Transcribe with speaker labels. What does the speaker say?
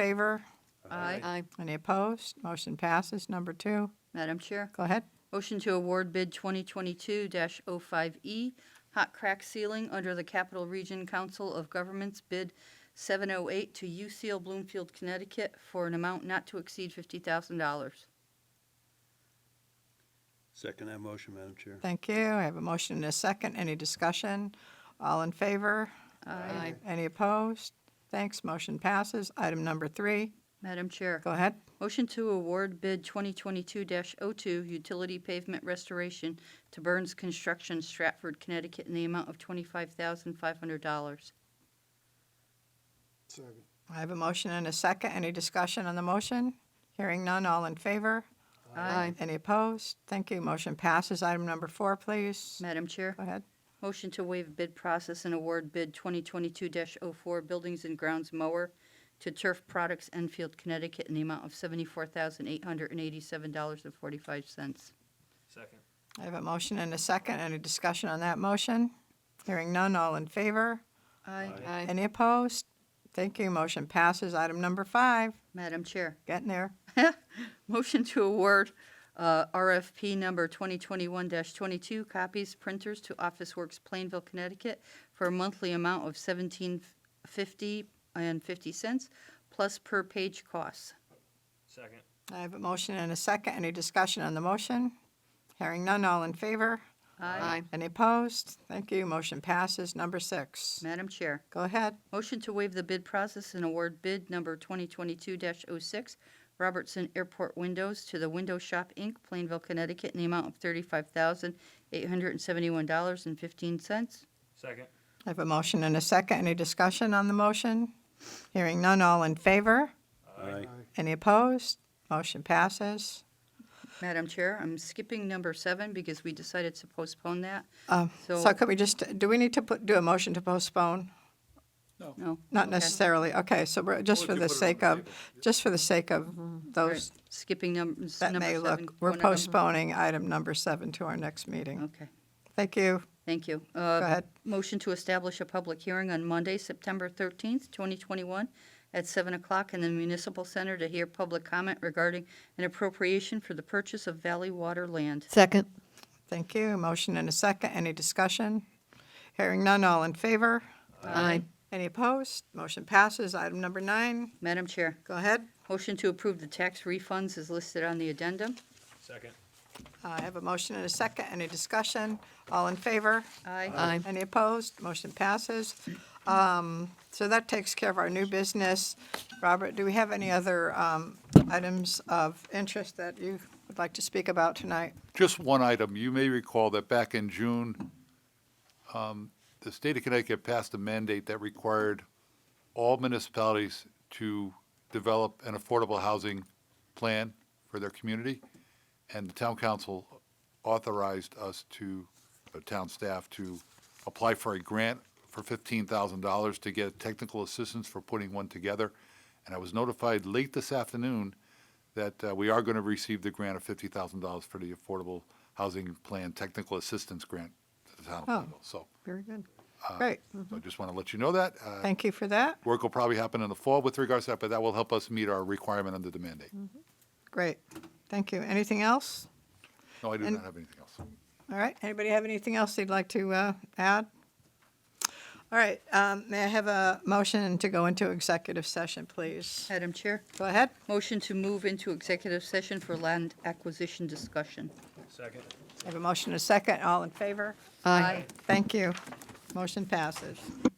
Speaker 1: Favor?
Speaker 2: Aye.
Speaker 3: Aye.
Speaker 1: Any opposed? Motion passes. Number two,
Speaker 2: Madam Chair,
Speaker 1: go ahead.
Speaker 2: motion to award bid 2022-05E E, hot crack ceiling under the Capital Region Council of Governments Bid 708 to UCL Bloomfield, Connecticut for an amount not to exceed $50,000.
Speaker 3: Second that motion, Madam Chair.
Speaker 1: Thank you. I have a motion and a second. Any discussion? All in favor?
Speaker 2: Uh,
Speaker 3: Aye.
Speaker 1: Any opposed? Thanks. Motion passes. Item number three,
Speaker 2: Madam Chair,
Speaker 1: go ahead.
Speaker 2: motion to award bid 2022-02 utility pavement restoration to Burns Construction, Stratford, Connecticut in the amount of $25,500.
Speaker 4: Second.
Speaker 1: I have a motion and a second. Any discussion on the motion? Hearing none. All in favor?
Speaker 3: Aye.
Speaker 1: Any opposed? Thank you. Motion passes. Item number four, please.
Speaker 2: Madam Chair.
Speaker 1: Go ahead.
Speaker 2: Motion to waive bid process and award bid 2022-04 Buildings and Grounds mower to Turf Products Enfield, Connecticut in the amount of $74,887.45.
Speaker 5: Second.
Speaker 1: I have a motion and a second. Any discussion on that motion? Hearing none. All in favor?
Speaker 2: Aye.
Speaker 3: Aye.
Speaker 1: Any opposed? Thank you. Motion passes. Item number five,
Speaker 2: Madam Chair,
Speaker 1: getting there.
Speaker 2: motion to award uh, RFP number 2021-22 copies printers to Office Works Plainville, Connecticut for a monthly amount of $17.50 and 50 cents plus per page costs.
Speaker 5: Second.
Speaker 1: I have a motion and a second. Any discussion on the motion? Hearing none, all in favor?
Speaker 3: Aye.
Speaker 1: Any opposed? Thank you. Motion passes. Number six.
Speaker 2: Madam Chair.
Speaker 1: Go ahead.
Speaker 2: Motion to waive the bid process and award bid number 2022-06 Robertson Airport Windows to the Window Shop, Inc., Plainville, Connecticut, in the amount of $35,871.15.
Speaker 5: Second.
Speaker 1: I have a motion and a second. Any discussion on the motion? Hearing none, all in favor?
Speaker 3: Aye.
Speaker 1: Any opposed? Motion passes.
Speaker 2: Madam Chair, I'm skipping number seven because we decided to postpone that.
Speaker 1: Um, So
Speaker 2: So-
Speaker 1: could we just, do we need to put, do a motion to postpone?
Speaker 2: No?
Speaker 1: Not
Speaker 2: Okay.
Speaker 1: necessarily. Okay, so we're- just for the sake of, just for the sake of
Speaker 2: All
Speaker 1: those
Speaker 2: right, Skipping num- number
Speaker 1: Oh, That
Speaker 2: seven.
Speaker 1: may look, we're
Speaker 2: one of them.
Speaker 1: postponing item number seven to our next meeting.
Speaker 2: Okay,
Speaker 1: Thank you.
Speaker 2: thank you. Go
Speaker 1: Go ahead.
Speaker 2: Motion to establish a public hearing on Monday, September 13th, 2021, at 7 o'clock in the Municipal Center to hear public comment regarding an appropriation for the purchase of Valley Water land.
Speaker 3: Second.
Speaker 1: Thank you. Motion and a second. Any discussion? Hearing none, all in favor?
Speaker 3: Aye.
Speaker 1: Any opposed? Motion passes. Item number nine,
Speaker 2: Madam Chair,
Speaker 1: go ahead.
Speaker 2: motion to approve the tax refunds is listed on the addendum.
Speaker 5: Second.
Speaker 1: I have a motion and a second. Any discussion? All in favor?
Speaker 2: Aye.
Speaker 3: Aye.
Speaker 1: Any opposed? Motion passes. Um, So that takes care of our new business. Robert, do we have any other um, items of interest that you would like to speak about tonight?
Speaker 6: just one item. You may recall that back in June, um, the state of Connecticut passed a mandate that required all municipalities to develop an affordable housing plan for their community. And the town council authorized us to, the town staff, to apply for a grant for fifteen thousand dollars to get technical assistance for putting one together. And I was notified late this afternoon that uh, we are going to receive the grant of fifty thousand dollars for the Affordable Housing Plan Technical Assistance Grant to the town of
Speaker 1: Oh.
Speaker 6: Plainville. So
Speaker 1: Very good. Great. Mm.
Speaker 6: so I just want to let you know that. Uh,
Speaker 1: Thank you for that.
Speaker 6: Work will probably happen in the fall with regards to that, but that will help us meet our requirement under the mandate.
Speaker 1: Mm. Great. Thank you. Anything else?
Speaker 6: No, I do
Speaker 1: And-
Speaker 6: not have anything else.
Speaker 1: All right. Anybody have anything else they'd like to uh, add? All right. um, May I have a motion to go into executive session, please?
Speaker 2: Madam Chair,
Speaker 1: Go ahead.
Speaker 2: motion to move into executive session for land acquisition discussion.
Speaker 5: Second.
Speaker 1: I have a motion and a second. All in favor?
Speaker 3: Aye.
Speaker 1: Thank you. Motion passes.